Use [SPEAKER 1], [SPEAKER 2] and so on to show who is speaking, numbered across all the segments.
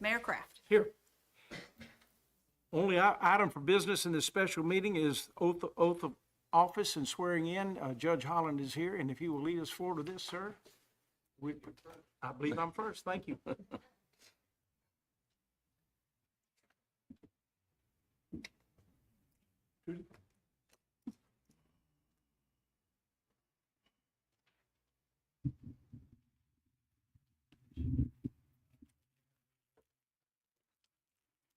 [SPEAKER 1] Mayor Kraft.
[SPEAKER 2] Here. Only i- item for business in this special meeting is oath, oath of office and swearing in. Uh, Judge Holland is here, and if you will lead us forward to this, sir. We, I believe I'm first. Thank you.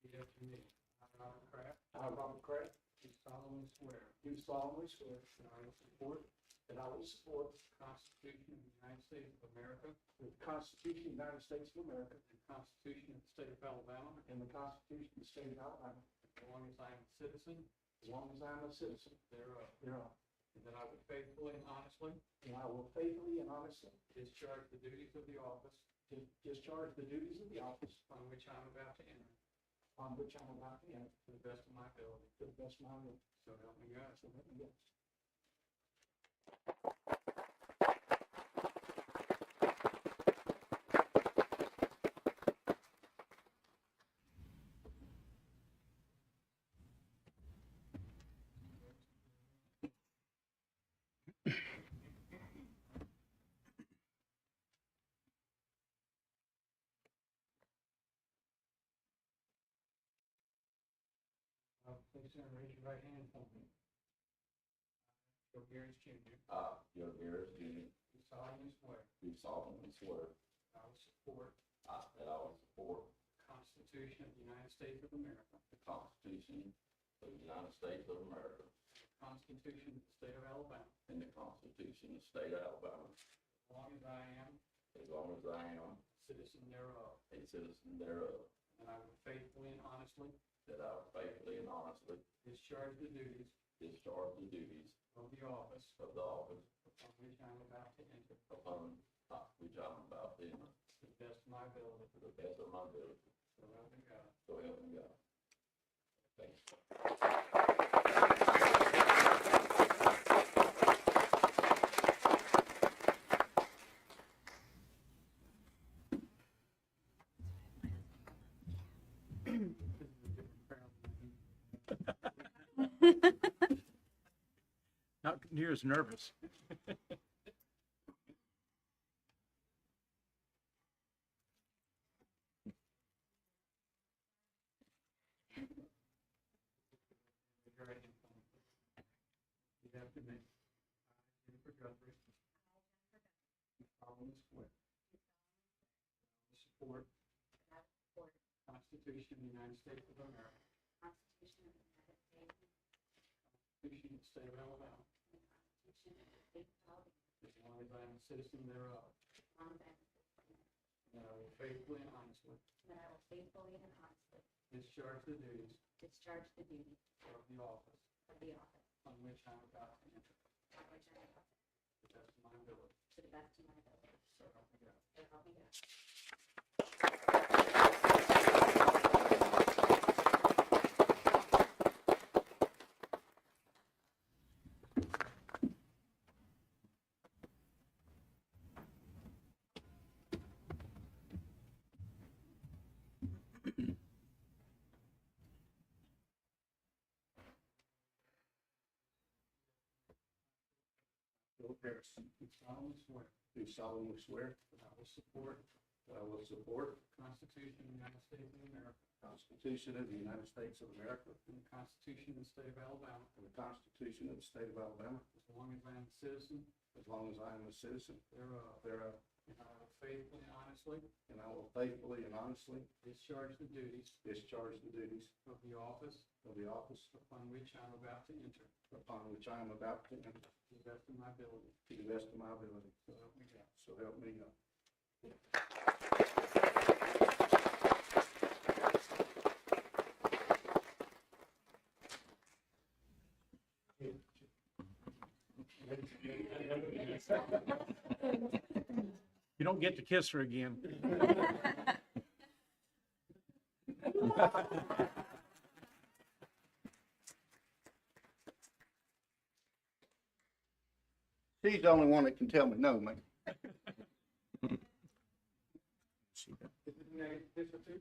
[SPEAKER 3] Good afternoon. I, Robert Kraft. I, Robert Kraft. Do solemnly swear. Do solemnly swear. That I will support. That I will support. The Constitution of the United States of America. The Constitution of the United States of America. The Constitution of the State of Alabama. And the Constitution of the State of Alabama. As long as I am a citizen. As long as I am a citizen. Thereof. Thereof. And that I will faithfully and honestly. And I will faithfully and honestly. Discharge the duties of the office. Discharge the duties of the office. On which I am about to enter. On which I am about to enter. To the best of my ability. To the best of my ability. So help me God. So help me God. Uh, Uh, Please stand and raise your right hand for me. Uh, Joe Garris Jr.
[SPEAKER 4] I, Joe Harris Jr.,
[SPEAKER 3] Do solemnly swear
[SPEAKER 4] do solemnly swear
[SPEAKER 3] that I will support
[SPEAKER 4] I- uh, that I will support
[SPEAKER 3] the Constitution of the United States of America,
[SPEAKER 4] the Constitution of the United States of America
[SPEAKER 3] the Constitution of the State of Alabama,
[SPEAKER 4] and the Constitution of the State of Alabama,
[SPEAKER 3] as long as I am a
[SPEAKER 4] as long as I am
[SPEAKER 3] citizen thereof,
[SPEAKER 4] a citizen thereof,
[SPEAKER 3] and I will faithfully and honestly
[SPEAKER 4] that I will faithfully and honestly
[SPEAKER 3] discharge the duties
[SPEAKER 4] discharge the duties
[SPEAKER 3] of the office
[SPEAKER 4] of the office
[SPEAKER 3] on which I am about to enter
[SPEAKER 4] upon uh, which I'm about to enter
[SPEAKER 3] to the best of my ability,
[SPEAKER 4] to the best of my ability,
[SPEAKER 3] so help me God.
[SPEAKER 4] so help me God. Thank you.
[SPEAKER 3] This is a different crowd than I usually
[SPEAKER 2] Not near as nervous.
[SPEAKER 3] Raise your right hand for me. Repeat after me. I, Jennifer Guthrie. Do solemnly swear. that I will Support. the Constitution of the United States of America. Constitution of the State of Alabama. As long as I am a citizen thereof. And I will faithfully and honestly
[SPEAKER 5] That I will faithfully and honestly
[SPEAKER 3] discharge the duties
[SPEAKER 5] discharge the duties
[SPEAKER 3] of the office
[SPEAKER 5] of the office
[SPEAKER 3] on which I am about to enter
[SPEAKER 5] on which I am about
[SPEAKER 3] to the best of my ability.
[SPEAKER 5] to the best of my ability.
[SPEAKER 3] So help me God.
[SPEAKER 5] So help me God.
[SPEAKER 4] Joe Harris,
[SPEAKER 3] Do solemnly swear
[SPEAKER 4] do solemnly swear
[SPEAKER 3] that I will support
[SPEAKER 4] that I will support
[SPEAKER 3] the Constitution of the United States of America.
[SPEAKER 4] the Constitution of the United States of America
[SPEAKER 3] And the Constitution of the State of Alabama.
[SPEAKER 4] and the Constitution of the State of Alabama,
[SPEAKER 3] As long as I am a citizen
[SPEAKER 4] as long as I am a citizen
[SPEAKER 3] thereof.
[SPEAKER 4] thereof,
[SPEAKER 3] And I will faithfully and honestly
[SPEAKER 4] And I will faithfully and honestly
[SPEAKER 3] discharge the duties
[SPEAKER 4] discharge the duties
[SPEAKER 3] of the office
[SPEAKER 4] of the office
[SPEAKER 3] upon which I am about to enter to
[SPEAKER 4] upon which I am about to enter
[SPEAKER 3] the best of my ability.
[SPEAKER 4] to the best of my ability.
[SPEAKER 3] So help me God.
[SPEAKER 4] So help me God.
[SPEAKER 2] You don't get to kiss her again.
[SPEAKER 4] She's the only one that can tell me no, man.